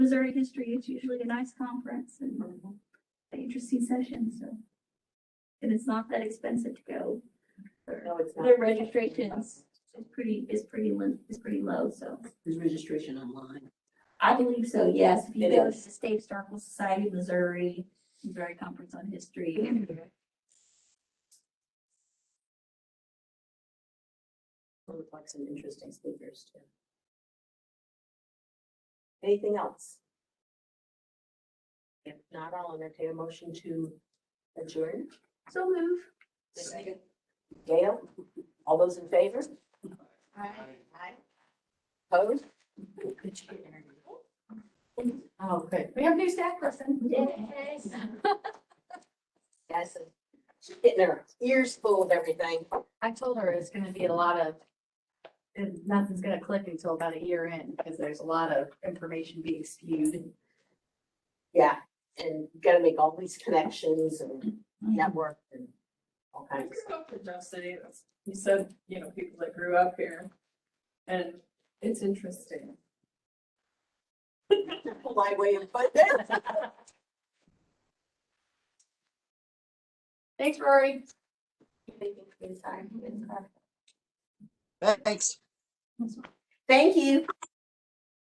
Missouri history, it's usually a nice conference and interesting session, so. And it's not that expensive to go. Their- No, it's not. Their registrations is pretty, is pretty, lin- is pretty low, so. Is registration online? I believe so, yes. If you It go to is. the State Historical Society of Missouri, Missouri Conference on History. Looks like some interesting speakers too. Anything else? If not, I'll entertain a motion to adjourn. So move. Gail, all those in favor? Aye. Opposed? Oh, good. We have new staff person. Yes. She's getting her ears full of everything. I told her it's gonna be a lot of, and nothing's gonna click until about a year in, because there's a lot of information being spewed. Yeah, and gotta make all these connections and network and all I kinds of grew up in Jeff City, that's, you said, you know, people that grew up here. And it's interesting. stuff. My way of putting it. Thanks, Rory. Thanks. Thank you.